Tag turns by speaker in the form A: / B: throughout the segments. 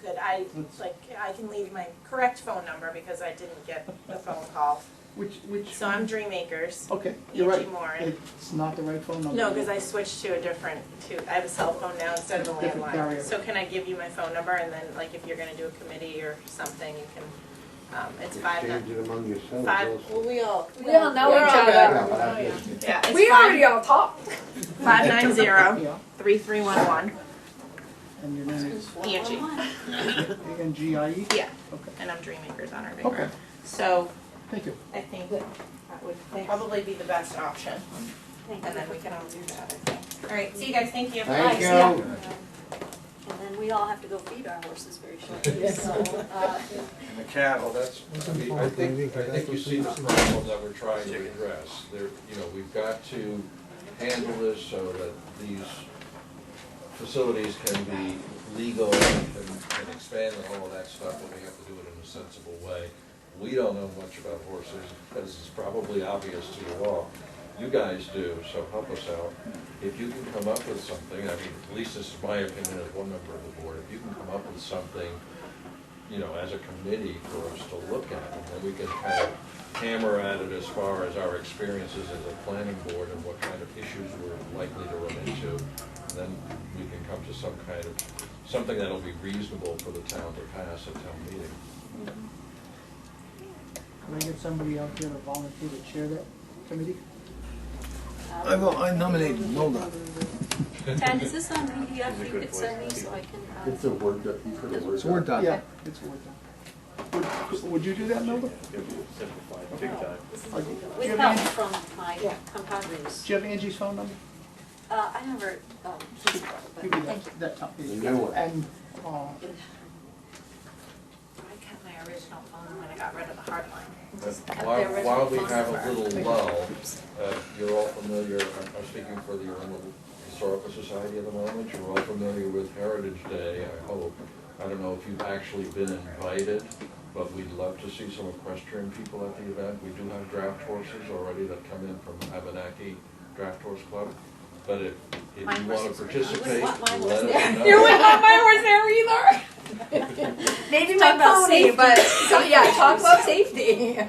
A: could I, like, I can leave my correct phone number because I didn't get the phone call.
B: Which, which?
A: So I'm Dreammakers,
B: Okay, you're
A: Angie
B: right.
A: Moran.
B: It's not the right phone number.
A: No, because I switched to a different, to, I have a cell phone now instead of a
B: Different
A: landline.
B: carrier.
A: So can I give you my phone number and then, like, if you're gonna do a committee or something, you can, um, it's five,
C: Exchange
A: nine-
C: it among yourselves
A: five,
C: also.
A: well, we all.
D: We all know
A: we're
D: each
A: all
D: other.
C: Yeah,
A: good.
C: but I guess
A: Yeah,
D: We already
A: it's
D: all talk.
A: five nine zero,
B: Yeah,
A: three three one one,
B: and your name is
A: Angie,
B: A N G I E?
A: yeah,
B: Okay,
A: and I'm Dreammakers on our
B: okay,
A: paper. So
B: thank you.
A: I think that would probably be the best option. And then we can all do that, I think. All right, see you guys, thank you.
C: Thank
D: Yeah.
C: you.
E: And then we all have to go feed our horses very shortly, so, uh,
F: And the cattle, that's, I mean, I think, I think you see the problem that we're trying to address. There, you know, we've got to handle this so that these facilities can be legal and and expand and all of that stuff, but we have to do it in a sensible way. We don't know much about horses, as is probably obvious to you all. You guys do, so help us out. If you can come up with something, I mean, at least this is my opinion as one member of the board, if you can come up with something you know, as a committee for us to look at, and then we can kind of hammer at it as far as our experiences as a planning board and what kind of issues we're likely to run into. And Then we can come to some kind of, something that'll be reasonable for the town to pass at town meeting.
B: Can I get somebody out here to volunteer to chair that committee?
E: um,
G: I will, I nominate Nolda.
E: Ted, is this on PDF you could send me so I can, uh,
C: It's a word, doc- you put a word.
G: It's word
C: doc.
G: doc.
B: Yeah, it's worth it. Would, would you do that, Melba?
H: Simplified, big time.
E: this is
B: Like, do you
E: with
B: have
E: help
B: Angie-
E: from my
B: Yeah.
E: compadres.
B: Do you have Angie's phone number?
E: Uh, I never, um, just,
B: Give
E: but
B: me
E: thank you.
B: that, that top page.
C: The new one.
B: And, uh,
A: I kept my original phone when I got rid of the hard line.
F: But
E: Have
F: While,
E: the original
F: while we
E: phone
F: have a
E: number.
F: little lull, uh, you're all familiar, I'm I'm speaking for the Arundel Historical Society at the moment, you're all familiar with Heritage Day, I hope. I don't know if you've actually been invited, but we'd love to see some equestrian people at the event. We do have draft horses already that come in from Abenaki Draft Horse Club, but if, if
E: My
F: you wanna
E: horses are- I wouldn't
F: participate,
E: want my
F: let
E: horse
F: us know.
D: not my horse there either. Maybe my
E: Talk about
D: pony,
E: safety.
D: but, so, yeah, talk about safety.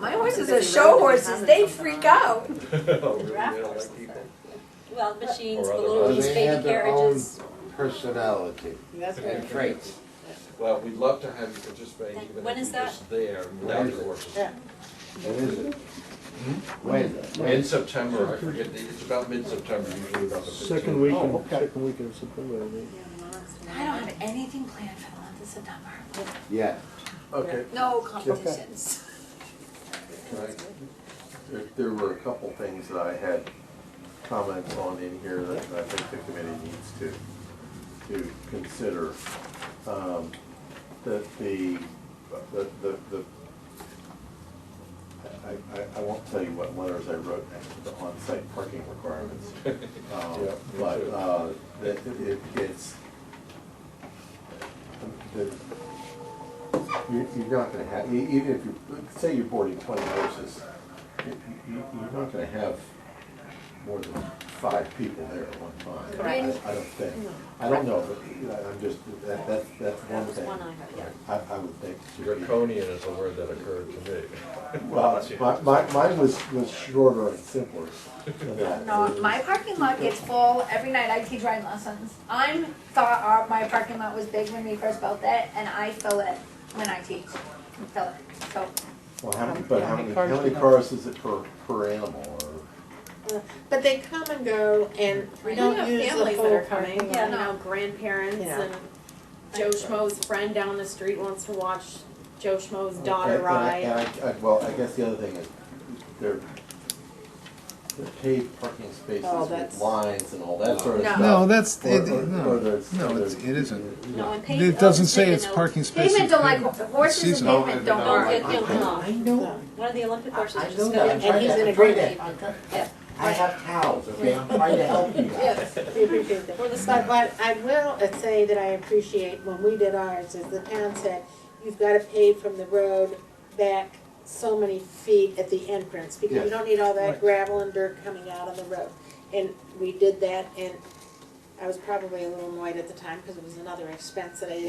D: My horses are show horses, they freak out.
F: Oh, really? They don't like people?
E: Well, machines,
F: Or
E: the
F: other
E: little
F: buses.
E: loose
C: They
E: baby
C: have their own
E: carriages.
C: personality
I: That's right.
C: and traits.
F: Well, we'd love to have you participate,
E: Thank-
F: even if
E: when is
F: you're just there, without your horses.
I: Yeah.
C: What is it? When?
F: In
C: When?
F: September, I forget, the- it's about mid-September, usually about the fifteenth.
H: Second week,
B: Oh,
H: in-
B: okay.
H: second week in September, I think.
D: I don't have anything planned for the month of September.
C: Yeah.
H: Okay.
D: No competitions.
F: Right.
J: There, there were a couple things that I had comments on in here that I think the committee needs to, to consider. Um, That the, the, the, the, I, I, I won't tell you what letters I wrote next to the on-site parking requirements. Um,
F: Yeah, me
J: But,
F: too.
J: uh, that it, it's, the,
C: You- You're not gonna have,
J: E- Even if you, say you're boarding twenty horses, you- you- you're not gonna have more than five people there at one time. I- I don't think, I don't know, but you know, I'm just, that, that, that's one
E: That was
J: thing.
E: one I heard, yeah.
J: I, I would think. it should be-
F: Draconian is a word that occurred to me.
J: Well, my, my, mine was, was shorter and simpler than that.
D: No, my parking lot gets full every night. I teach riding lessons. I'm thought our, my parking lot was big when we first built it, and I fill it when I teach. Fill it. So,
J: Well, how many, but
B: How
J: how
B: many
J: many,
B: cars
J: how many
B: do you have?
J: cars is it per, per animal or?
I: But they come and go, and we
D: You
I: don't
D: have
I: use the
D: families that
I: full
D: are coming.
I: parking lot.
D: Yeah.
K: you know, grandparents
I: Yeah.
K: and Joe Schmo's friend down the street wants to watch Joe Schmo's daughter
J: And- and I-
K: ride.
J: and I- I- Well, I guess the other thing is, they're, they're paved parking spaces
I: Oh,
J: with
I: that's-
J: lines and all that sort of
I: No.
J: stuff.
G: No, Oh, that's,
J: Or-
G: it,
J: or- or
G: no,
J: there's-
G: no, it's-
J: there's-
G: it isn't.
E: No, and pavement.
G: It doesn't say it's parking spaces.
D: pavement don't like horses. And
G: Seasonal.
D: pavement don't like.
E: You'll come off.
C: know.
E: One of the Olympic horses
C: I
E: just
C: know
E: got.
C: that.
I: And he's in agreement.
C: I have cows, okay? I'm trying to help you guys.
I: Yes, we appreciate that.
D: Mm-hmm.
I: But what I will say that I appreciate when we did ours is the town said, you've gotta pave from the road back so many feet at the entrance, because you
J: Yes.
I: don't need all that
B: Right.
I: gravel and dirt coming out on the road. And we did that, and I was probably a little annoyed at the time, because it was another expense that I